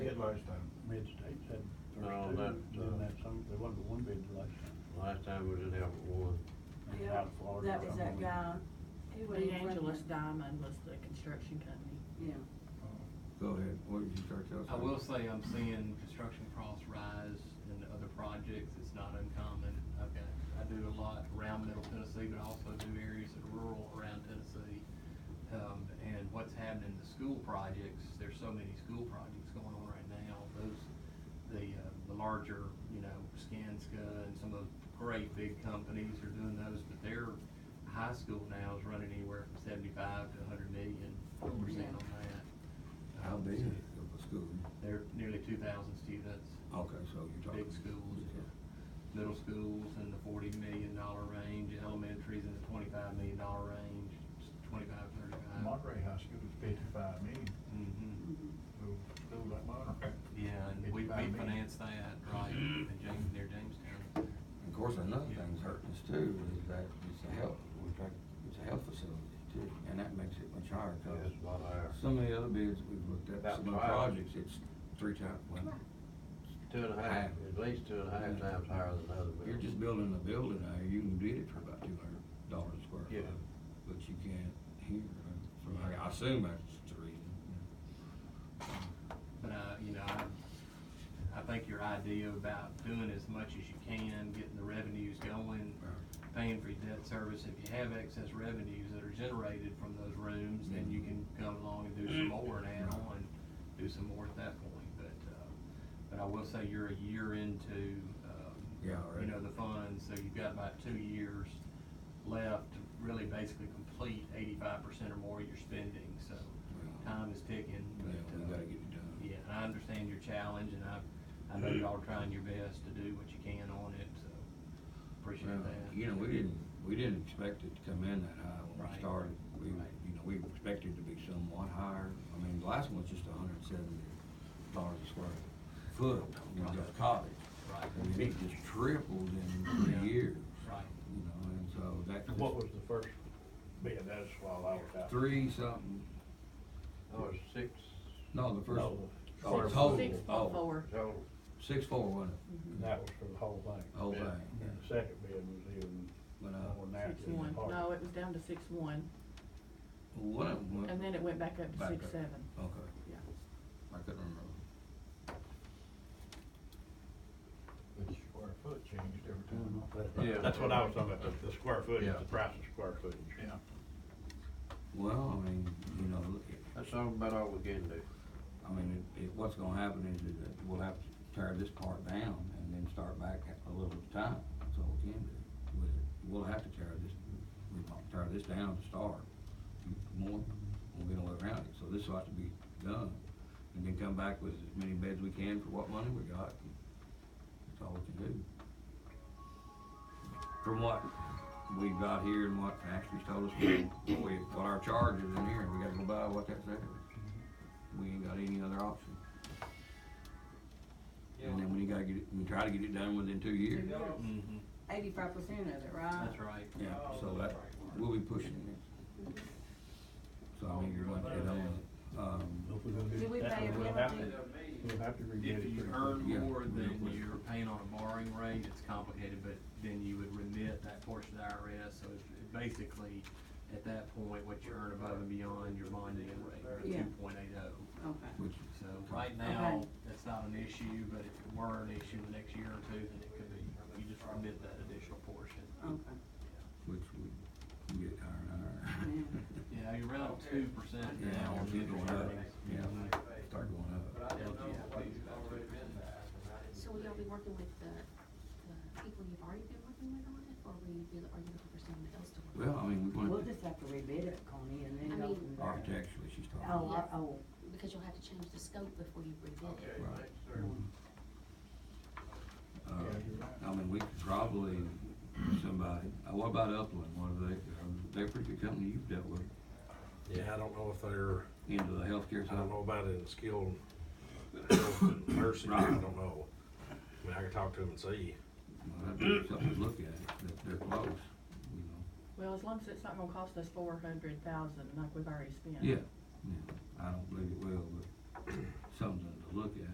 last time. Mid-State said first No, two, that, uh, then that some, there wasn't but one bid the last time. Last time we did have one. It was Yeah, out of Florida or that was that something. guy. It was He the wasn't- Angelus Diamond was the construction company. Yeah, Uh, Go ahead, what did you start telling us? I will say uh, I'm seeing construction costs rise in other projects, it's not uncommon. I've got, I do a lot around middle Tennessee, but I also do areas that are rural around Tennessee. Um, and what's happening, the school projects, there's so many school projects going on right now, those, the, uh, the larger, you know, Skanska and some of the great big companies are doing those, but their high school now is running anywhere from seventy-five to hundred million, we're seeing on that. How Um, big is so- the school? they're nearly two thousand students, Okay, so Oh, you're talking. big schools, yeah. middle schools in the forty million dollar range, elementaries in the twenty-five million dollar range, twenty-five, thirty-five. uh, Monterey High School is fifty-five million, Mhm. mhm. little school like Monterey. Yeah, and we, we 55 million. finance that, right, in James, near Jamestown. Of course, another thing that's hurting us too is that it's a health, we're talking, it's a health facility too, and that makes it much higher Yeah, cost. it's a lot higher. Some of the other bids we've looked at, About some of the five. projects, it's three times, well, Two and a half, Higher. at least two and a half times higher than other buildings. you're just building a building there, you can bid it for about two hundred dollars a square Yeah. foot. But you can't here, uh, from, I assume that's the reason. But, uh, you know, I, I think your idea about doing as much as you can, getting the revenues going, paying for your debt service, if you have excess revenues that are generated from those rooms, then you can come along and do some more and add on, do some more at that point, but, uh, but I will say you're a year into, um, Yeah, right. you know, the funds, so you've got about two years left to really basically complete eighty-five percent or more of your spending, so Well, time is ticking, but. Yeah, we uh, gotta get it done. Yeah, and I understand your challenge, and I, I know y'all are trying your best to do what you can on it, so Well, appreciate that. You know, we didn't, we didn't expect it to come in that high when we Right. started. We, Right. you know, we expected it to be somewhat higher. I mean, the last one's just a hundred and seventy dollars a square foot, you know, just cottage. Right. And it just tripled in Yeah. three years. Right. You know, and so that. And What was the first bid? That's while I was out. Three something, Oh, it's six no, the first, No, the oh, first total, one. Six oh, point four. total. Six four, wasn't And that was for the whole thing. it? Whole thing. And the second bid was even But, uh, more than that. Six in the one. park. No, it was down to six one, One of them. went and then it went back up to back six up. seven. Okay. Yeah. I couldn't remember. The square foot changed every time. Yeah. Mm-hmm. That's what I was talking about, the, the square footage, Yeah. the price of square footage. Yeah. Well, I mean, you know, it- That's all about all we can do. I mean, it, it, what's gonna happen is that we'll have to tear this part down and then start back at a little at a time, that's all we can do. We- We'll have to tear this, we might tear this down to start, more, we'll get all the way around it, so this will have to be done. And then come back with as many beds we can for what money we got, that's all we can do. From what we've got here and what Ashley's told us, what we, what our charge is in here, we gotta go by what that's there. We ain't got any other option. And then when you gotta get it, we try to get it done within two years. Mm-hmm, Eighty-five percent of it, right? that's right. Yeah, so that, we'll be pushing it. So I mean, you're gonna get on, um, Did we pay a We'll have penalty? to, we'll have to rebid If it. you pretty earn quick. Yeah. more than you're paying on a borrowing rate, it's complicated, but then you would remit that portion to IRS, so it's it basically, at that point, what you earn above and beyond your bonding rate, Yeah. two point eight oh. Okay. which, So right now, that's not an issue, but if it were an issue in the next year or two, then it could be, you just remit that additional portion. Okay. which we get higher and higher. Yeah, you're around two percent Yeah, now we'll on the keep going interest up, earnings. yeah, start going up. Yeah, please, about two percent. So will y'all be working with the, the people you've already been working with on it, or will you be, are you looking for someone else to work? Well, I mean, we're We'll gonna, just have to rebid it, Connie, and then I go mean- from there. architecturally, she's talking. Oh, I- oh, with? Because you'll have to change the scope before you rebid it. Right. mm. Uh, I mean, we could probably, somebody, uh, what about Upland, what are they, uh, they're a pretty good company you've dealt with, Yeah, I don't know if they're, into the healthcare I side. don't know about it in skilled nursing, I don't know. I mean, I could talk to them and see. Well, that'd be something to look at, that they're close, you know, Well, as long as it's not gonna cost us four hundred thousand, like we've already spent. yeah, yeah, I don't believe it will, but something to look at.